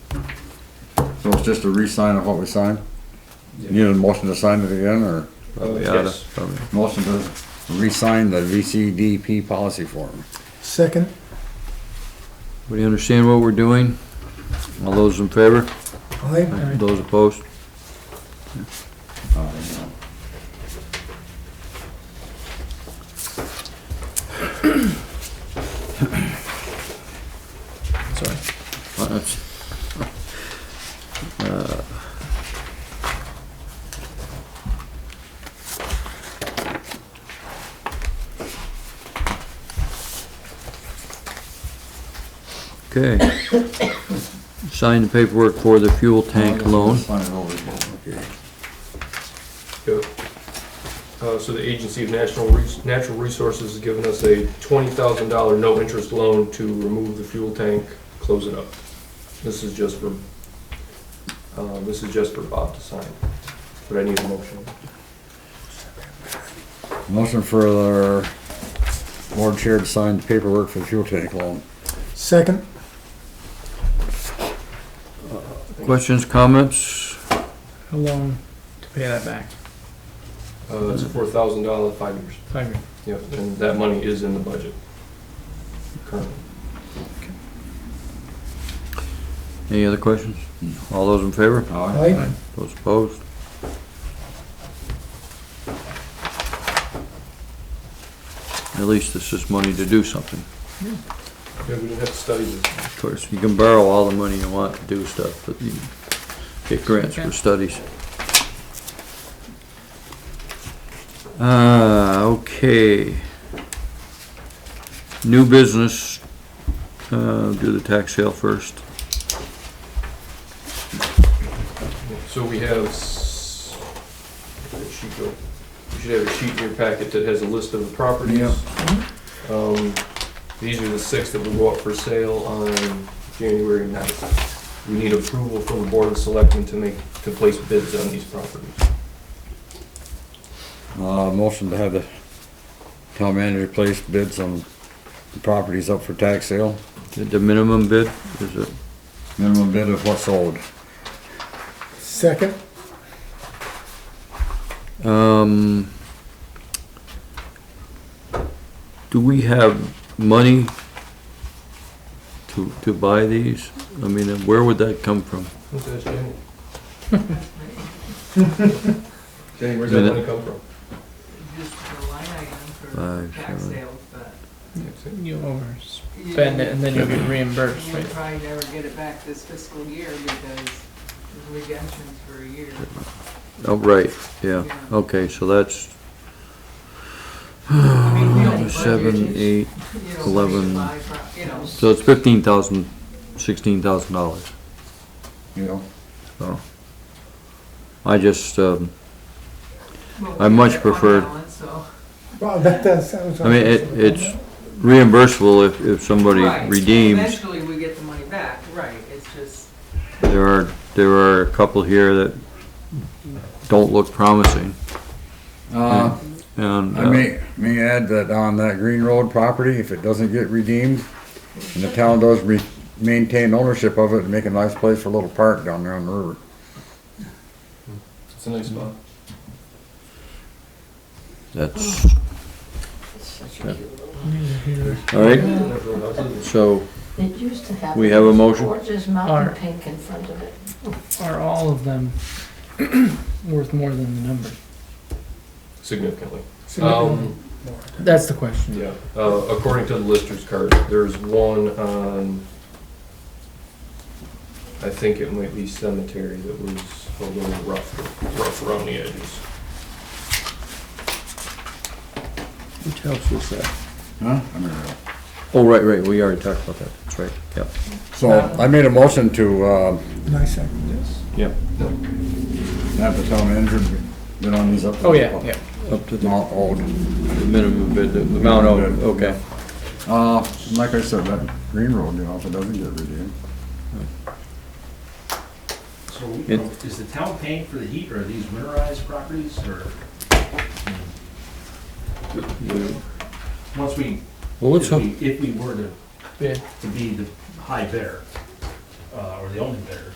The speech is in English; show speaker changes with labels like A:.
A: So it's just a re-sign of what we signed? You need a motion to sign it again, or
B: Probably
C: Uh,
B: oughta,
C: yes.
B: probably.
A: motion to re-sign the VCDP policy form?
D: Second,
B: Everybody understand what we're doing? All those in favor?
D: aye.
B: Those opposed?
D: Sorry.
B: Well, that's- Uh, Okay. Sign the paperwork for the fuel tank loan.
A: Sign it over. Okay.
C: Go. Uh, so the Agency of National, Res- Natural Resources has given us a twenty thousand dollar no-interest loan to remove the fuel tank, close it up. This is just for, uh, this is just for Bob to sign, but I need a motion.
A: Motion for the board chair to sign the paperwork for the fuel tank loan.
D: Second,
B: Questions, comments?
E: How long to pay that back?
C: Uh, it's four thousand dollar, five years.
E: Five years.
C: Yep, and that money is in the budget currently.
B: Any other questions? All those in favor?
A: Aye.
D: aye.
B: Those opposed? At least this is money to do something.
C: Yeah, we didn't have to study this.
B: Of course, you can borrow all the money you want to do stuff, but you get grants for studies. Uh, okay. New business, uh, do the tax sale first.
C: So we have, s- where did she go? You should have a sheet in your packet that has a list of the properties. Um, These are the six that will go up for sale on January 9th. We need approval from the Board of Selectmen to make, to place bids on these properties.
A: Uh, motion to have the town manager place bids on the properties up for tax sale.
B: The minimum bid, is it?
A: Minimum bid of what's sold.
D: Second,
B: Um, do we have money to, to buy these? I mean, and where would that come from?
C: What's that, Janet?
A: Okay,
C: Where's that money come from?
F: Just the line item
B: Five,
F: for tax
B: seven.
F: sales, but.
E: You overspend it and then you'll get reimbursed,
F: You'll
E: right?
F: probably never get it back this fiscal year because the redemption's for a year.
B: Oh, right, yeah,
F: Yeah.
B: okay, so that's
F: I mean, we only
B: seven,
F: budgeted,
B: eight,
F: you know,
B: eleven.
F: five pro- You know,
B: so it's fifteen thousand, sixteen thousand dollars.
A: You know,
B: I just, um,
F: well,
B: I
F: we
B: much
F: had one
B: preferred-
F: balance, so-
D: wow, that, that sounds.
B: I mean, it, it's reimbursable if, if somebody
F: Right.
B: redeems.
F: Eventually, we get the money back, right, it's just,
B: There are, there are a couple here that don't look promising,
A: uh,
B: and.
A: I
B: uh,
A: may, may add that on that Green Road property, if it doesn't get redeemed, and the town does re- maintain ownership of it and make a nice place for a little park down there on the river.
C: It's a nice spot.
B: That's. All right,
C: Everyone else is-
B: so
G: It used to have.
B: We have a motion?
G: Gorgeous
E: Alright.
G: mountain pink in front of it.
E: Are all of them worth more than the number?
C: Significantly.
D: Significantly.
C: Um,
E: That's the question.
C: Yeah, uh, according to the lister's card, there's one on, I think it might be cemetery that was a little rough, rough around the edges.
B: which house was that?
A: Huh? I mean,
B: Oh, right, right, we already talked about that, that's right, yep.
A: So I made a motion to, uh,
D: Nice, second, yes.
B: Yep.
A: have the town manager bid on these up. to-
E: Oh, yeah, yeah.
B: Up to the
A: Not old.
B: the minimum bid, the amount of, okay.
A: Uh, like I said, that Green Road, you know, if it doesn't get redeemed,
H: So
B: It-
H: is the town paying for the heat, or are these winterized properties, or? Once we,
B: Well, let's
H: if
B: hope,
H: we, if we were to,
E: Yeah.
H: to be the high bidder, uh, or the only bidder,